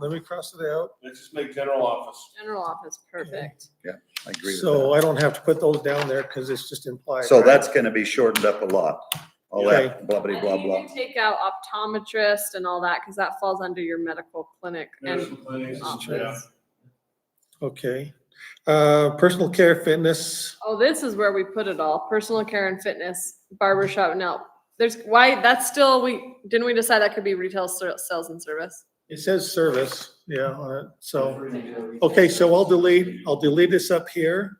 let me cross it out. Let's just make general office. General office, perfect. I agree with So uh, that. I don't have to put those down there because it's just implied. So right? that's gonna be shortened up a lot. All that blah, blah, And blah, you blah. can Take out optometrist and all that, because that falls under your medical clinic and Medical clinics, yeah. office. Okay. Uh, personal care, fitness, Oh, this is where we put it all, personal care and fitness, barber shop, no. There's, why, that's still, we, didn't we decide that could be retail ser- sales and service? it says service, yeah, on it. so. Okay, so I'll delete, I'll delete this up here.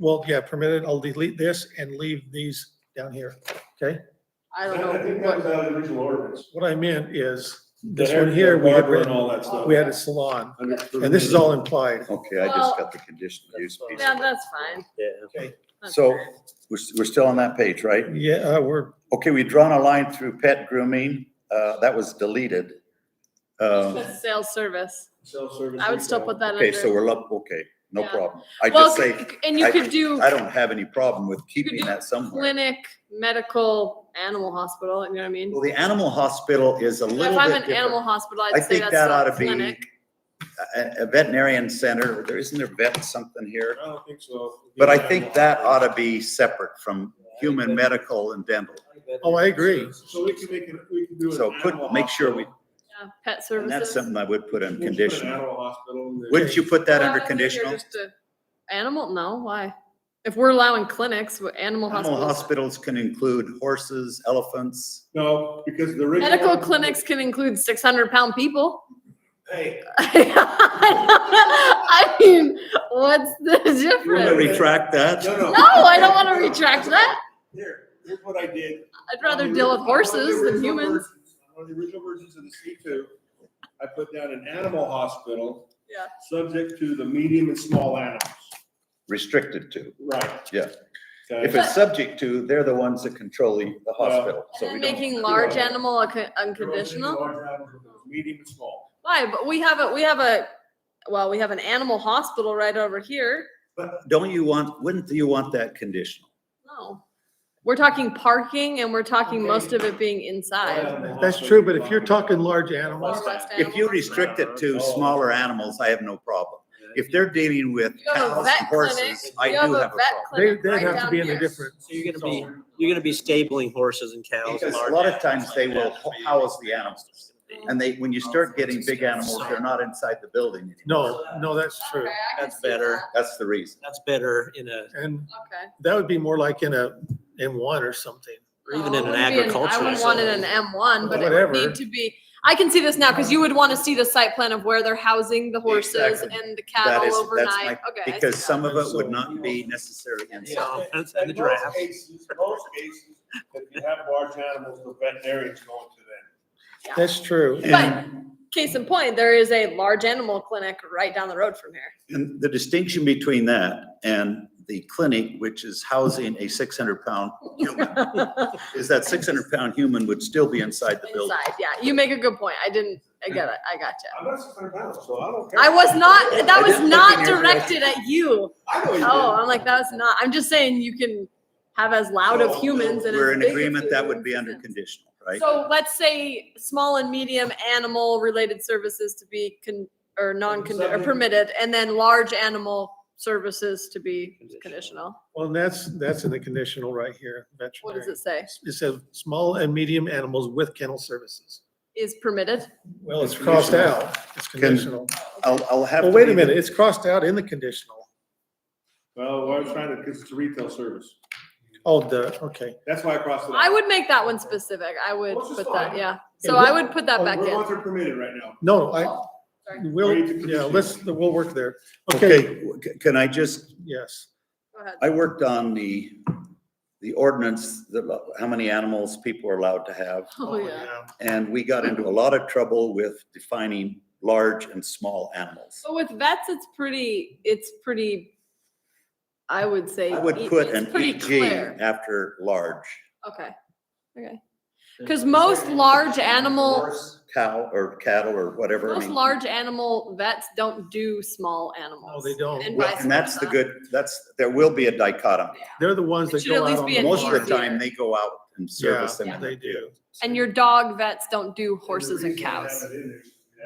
Well, yeah, permitted, I'll delete this and leave these down here, okay? I don't I think know. that was out of the original ordinance. What I meant is, this one here, we had, Barber and written- all that stuff. we had a salon, Under- and this is all implied. Okay, I just got the conditional use piece. Yeah, that's fine. Okay. That's So fine. we're, we're still on that page, right? Yeah, uh, we're, Okay, we've drawn a line through pet grooming. Uh, that was deleted. Um, Just Sales service, Self-service. I would still put that under. okay, so we're up, okay, no Yeah. problem. I Well, just say, c- and you could do I don't have any problem with do keeping that somewhere. clinic, medical, animal hospital, you know what I mean? Well, the animal hospital is a So If little I'm bit an animal different. hospital, I I'd say think that's that ought still a to be a, clinic. a veterinarian center. There, isn't there vet something here? I don't think so. But I think that ought to be separate from human, medical and dental. oh, I agree. So we can make it, we can do an So put, animal make sure we, hospital. Yeah, Pet and that's services. something I would put We'll in put an conditional. Animal hospital. in there. Wouldn't you put that Well, under I think you're conditional? just a- Animal, no, why? If we're allowing clinics, with animal Animal hospitals. hospitals can include horses, elephants. No, because the original. Medical clinics can include six hundred pound people. Hey, I mean, what's the You want to difference? re- retract that? no, no. No, I don't wanna retract that. Here, here's what I did. I'd rather deal with horses than humans. One of the original versions of the C two, I put down an animal hospital. Yeah. Subject to the medium and small animals. Restricted to. Right. Yeah. If Okay, it's subject to, they're the ones that control the, the hospital. And So we then don't. making large that. animal a co- They're all taking unconditional? large animals, Medium and small. Why? But we have a, we have a, well, we have an animal hospital right over here. But don't you want, wouldn't you want that conditional? No. We're talking parking and we're talking most of it being inside. Animal That's hospital. true, but if you're talking large Or animals, West If you Animal restrict it to oh. smaller animals, I have no problem. If they're dealing with You have a cows vet clinic. and horses, I You do have have a a vet problem. they, clinic they'd right have to down be in a here. different, So you're gonna be, you're gonna be stabling horses and cows. and Because a large lot of animals times they like that. will house the animals. And they, when you start getting big animals, they're not inside the building. anymore. no, no, that's true. Okay, I can That's see better. that. That's the reason. That's better in a, And Okay. that would be more like in a, in one or something. or even No, in it an wouldn't be I agricultural. would want it in zone. M one, but it would Whatever. need to be, I can see this now, cause you would wanna see the site plan of where they're housing the horses Exactly. and the That cattle is- that's my- overnight. Okay. I see Because that. some of it would not be necessary inside. So, that's in the In most draft. cases, most cases, if you have large animals, the veterinarians going to them. That's true. But And, case in point, there is a large animal clinic right down the road from here. and the distinction between that and the clinic, which is housing a six hundred pound human, is that six hundred pound human would still be inside the building. Inside, yeah, you make a good point. I didn't, I get it, I got you. I'm not six hundred pounds, so I don't care. I was not, I that was didn't look not in your direction. directed at you. I know you did. Oh, I'm like, that was not, I'm just saying you can have as loud So, of humans and. We're as in big of agreement that would be humans under as- conditional, right? So let's say small and medium animal related services to be con, or non, or Something- permitted, and then large animal services to be conditional. Well, and that's, that's in the conditional right here, What does veterinary. it say? It says small and medium animals with kennel services. Is permitted? Well, it's crossed out. It's conditional. I'll, I'll have. Well, to wait a leave it. minute, it's crossed out in the conditional. Well, what I'm trying to, because it's a retail service. Oh, the, okay. That's why I crossed it out. I would make that one specific. I would Well, it's put just that, fine. yeah. Yeah, So we're- I would put that oh, back We're in. ones are permitted right now. No, I, Oh, Sorry. will, Ready to yeah, conditional. let's, we'll work there. Okay, Okay, c- can I just, yes. Go ahead. I worked on the, the ordinance, the, how many animals people are allowed to have. Oh, yeah. And we got into a lot of trouble with defining large and small animals. So with vets, it's pretty, it's pretty, I would say. I would e- put it's an pretty EG clear. after large. Okay, okay. Cause most large animal, Horse, Cow or cattle or whatever. I most mean. large animal vets don't do small No, animals. they don't. And Well, vice and that's the versa. good, that's, there will be a dichotomy. They're the ones It that should at go out least on be the an Most of farm. the easier- time, they go out and service them. Yeah, in they the field. do. And your dog vets don't do horses and reason I have cows. it in there is